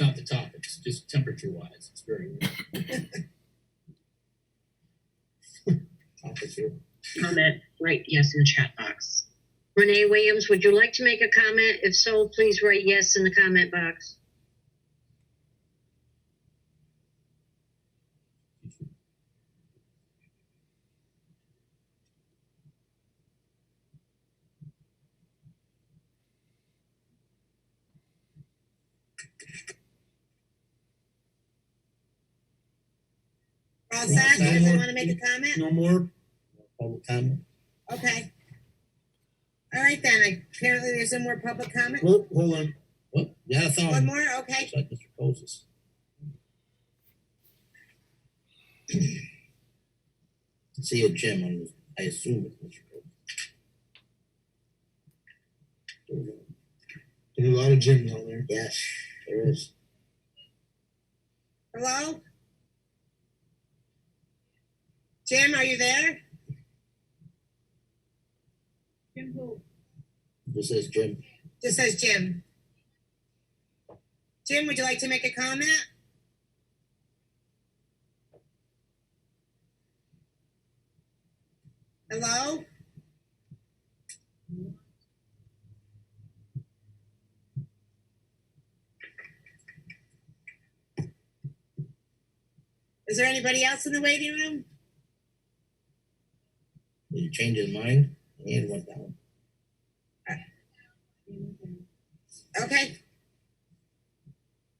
not the topic, it's just temperature wise, it's very. warm. Temperature. comment write yes in the chat box. Renee Williams, would you like to make a comment? If so, please write yes in the comment box. We're All set, Right. doesn't want to make a comment? No more public comment? Okay. All right then, I- apparently there's no more public comment. Hold, hold on. What? Yeah, I found One him. more, okay. Looks like Mr. Poses. See a Jim, I'm- I assume it's Mr. Poses. There's a lot of Jim down there. Yes, there is. Hello? Jim, are you there? Jim who? This is Jim. This says Jim. Jim, would you like to make a comment? Hello? Is there anybody else in the waiting room? Did he change his mind? And went down. Okay.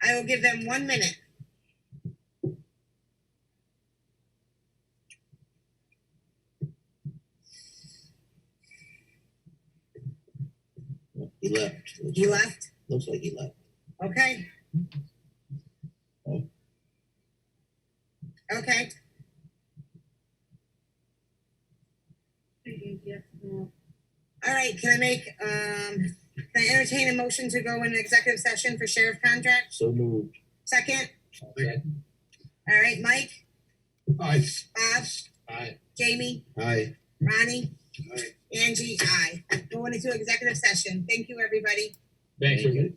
I will give them one minute. He left. You left? Looks like he left. Okay. Okay, all right, can I make, um, can I entertain a motion to go in executive session for sheriff contract? So moved. Second, all right, Mike, Aye. Bob, Aye. Jamie, Aye. Ronnie, Aye. Angie, I. Going into executive session. Thank you, everybody. Thank you.